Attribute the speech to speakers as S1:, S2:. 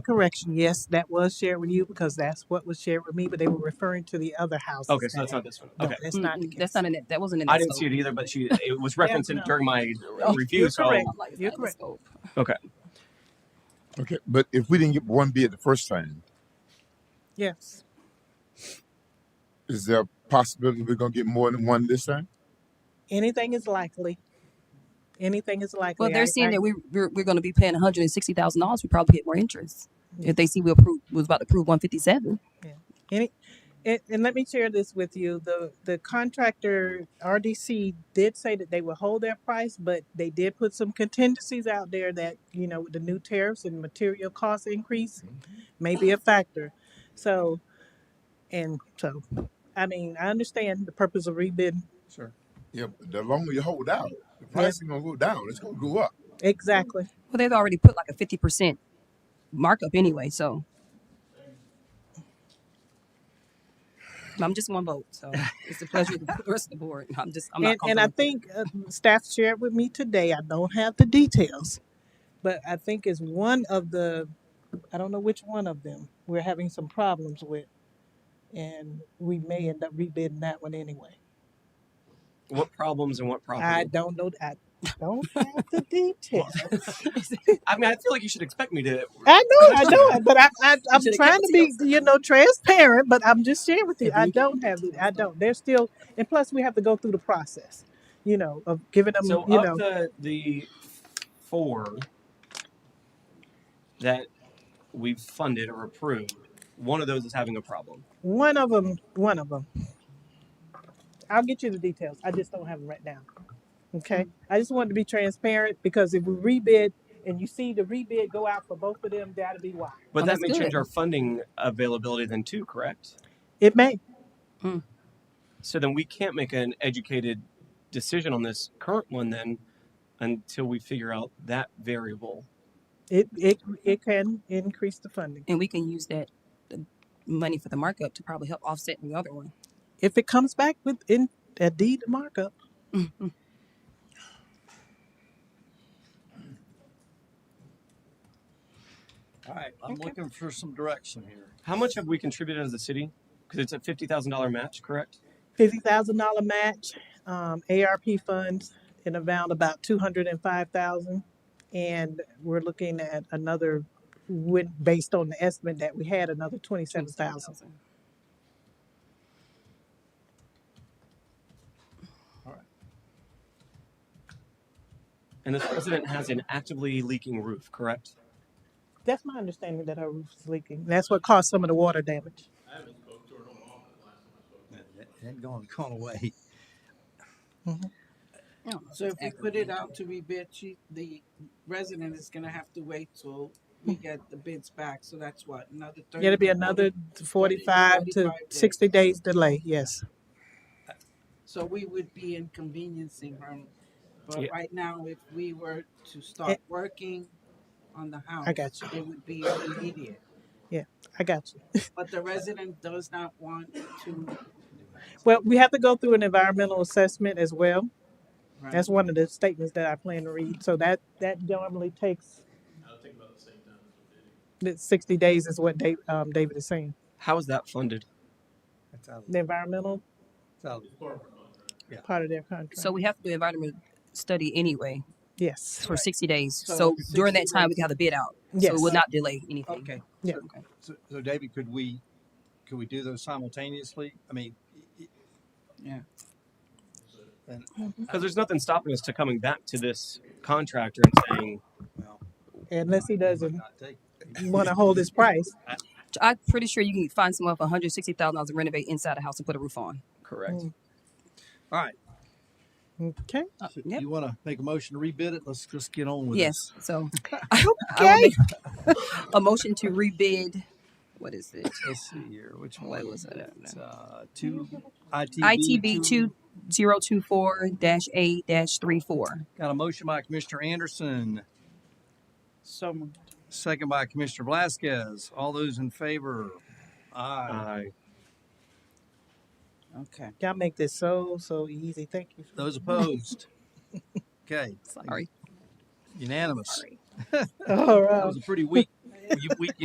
S1: Correction, yes, that was shared with you because that's what was shared with me, but they were referring to the other houses
S2: Okay, so
S1: that
S2: that's
S1: had,
S2: not this one.
S1: no,
S2: Okay.
S1: that's not the
S3: Mm-mm, Mm, that's
S1: case.
S3: not in it. That wasn't in
S2: I
S3: the
S2: didn't see
S3: scope.
S2: it either, but she it was
S1: Yeah,
S2: referenced in,
S1: no,
S2: during my
S3: Oh,
S2: review.
S1: you're
S2: So
S1: correct,
S3: I'm like, it's
S1: you're
S3: not in the
S1: correct.
S3: scope.
S2: okay,
S4: Okay, but if we didn't get one bid the first time,
S1: Yes,
S4: is there a possibility we're gonna get more than one this time?
S1: anything is likely, anything is
S3: Well,
S1: likely.
S3: they're
S1: I,
S3: seeing
S1: I,
S3: that we we're, we're going to be paying one hundred and sixty thousand dollars. We probably get more interest if they see we approve was about to approve one fifty seven.
S1: yeah. Any, And, and let me share this with you. The the contractor RDC did say that they would hold their price, but they did put some contingencies out there that, you know, with the new tariffs and material cost increase may be a factor. So and so I mean, I understand the purpose of rebid.
S2: sure.
S4: Yeah, but the longer you hold out, the
S1: Yes,
S4: price is gonna go down. It's gonna go up.
S1: exactly.
S3: Well, they've already put like a fifty percent markup anyway, so I'm just one vote. So it's a pleasure of the rest of the board. I'm just I'm not
S1: And and
S3: comfortable
S1: I
S3: with it.
S1: think uh, staff shared with me today. I don't have the details, but I think it's one of the I don't know which one of them we're having some problems with. and we may end up rebidding that one anyway.
S2: What problems and what
S1: I
S2: property?
S1: don't know. I don't have the
S2: Well,
S1: details.
S2: I mean, I feel like you should expect me to.
S1: I know, I know, but I, I,
S3: You
S1: I'm
S3: should have
S1: trying
S3: kept
S1: to
S3: it to
S1: be,
S3: yourself.
S1: you know, transparent. But I'm just sharing with you.
S3: If
S1: I
S3: you
S1: don't have it. I don't. They're still, and plus we have to go through the process, you know, of giving them,
S2: So
S1: you
S2: of
S1: know,
S2: the the four that we've funded or approved, one of those is having a problem.
S1: one of them, one of them. I'll get you the details. I just don't have them right now. Okay. I just wanted to be transparent because if we rebid and you see the rebid go out for both of them, that'll be why.
S2: But
S3: Well,
S2: that
S3: that's
S2: may change
S3: good.
S2: our funding availability then too, correct?
S1: It may.
S3: Mm.
S2: So then we can't make an educated decision on this current one then until we figure out that variable.
S1: It, it, it can increase the funding.
S3: And we can use that the money for the markup to probably help offset the other one.
S1: If it comes back with in a deed markup,
S5: All right, I'm
S3: Okay.
S5: looking for some direction here.
S2: How much have we contributed as a city? Because it's a fifty thousand dollar match, correct?
S1: fifty thousand dollar match, um, ARP funds in a amount about two hundred and five thousand. And we're looking at another, when, based on the estimate that we had, another
S3: Twenty
S1: twenty-seven
S3: seven
S1: thousand.
S3: thousand.
S5: All right.
S2: And this president has an actively leaking roof, correct?
S1: That's my understanding that our roof is leaking. That's what caused some of the water damage.
S5: That, that ain't gonna go away.
S1: Mhm.
S3: I don't know if
S6: So
S3: it's
S6: if we put
S3: accurately
S6: it
S3: leaking.
S6: out to rebid, she, the resident is gonna have to wait till we get the bids back, so that's what, another
S1: Yeah,
S6: thirty
S1: It'll
S6: to
S1: be another
S6: forty, forty to
S1: forty-five to
S6: forty-five
S1: sixty
S6: days.
S1: days delay, yes.
S6: So we would be inconveniencing her, but
S2: Yeah.
S6: right now, if we were to
S1: Eh,
S6: start working on the
S1: I
S6: house,
S1: got you,
S6: it would be immediate.
S1: yeah, I got you.
S6: But the resident does not want to,
S1: Well, we have to go through an environmental assessment as well.
S6: right?
S1: That's one of the statements that I plan to read. So that, that normally takes. That sixty days is what Dave, um, David is saying.
S2: How is that funded?
S5: That's out of,
S1: The environmental
S5: that's out of, yeah.
S1: part of their
S3: So
S1: contract.
S3: we have to do environment study anyway
S1: Yes,
S3: for sixty days.
S6: So
S3: So during
S6: sixty
S3: that time, we
S6: days,
S3: can have a bid out, so it
S1: yes,
S3: will not delay anything.
S5: Okay,
S1: yeah.
S5: so,
S3: Okay.
S5: so, so David, could we, could we do those simultaneously? I mean, i-
S6: yeah.
S5: i- and,
S2: Because there's nothing stopping us to coming back to this contractor and saying,
S5: well,
S1: Unless he
S5: he might
S1: doesn't
S5: not take.
S1: wanna hold his price.
S2: "Ah,
S3: I'm pretty sure you can find someone for one hundred sixty thousand dollars to renovate inside a house and put a roof on.
S2: correct.
S1: Mm,
S5: All right,
S1: Okay,
S3: Uh,
S5: so
S3: yep.
S5: you wanna make a motion to rebid it? Let's just get on with
S3: Yes.
S5: this.
S3: So I will
S1: okay.
S3: make a motion to rebid. What is it?
S5: Let's see here, which
S3: What
S5: one
S3: was
S5: was
S3: it? I don't
S5: it?
S3: know.
S5: Uh, two, ITB
S3: ITB
S5: two.
S3: two zero two four dash eight dash three four.
S5: Got a motion by Commissioner Anderson,
S6: So moved.
S5: second by Commissioner Blasquez. All those in favor?
S2: I
S5: Aye.
S6: Okay.
S1: Y'all make this so, so easy. Thank you.
S5: Those opposed? Okay,
S3: Sorry.
S5: unanimous.
S3: Sorry.
S1: All
S5: That
S1: right.
S5: was a pretty weak, weak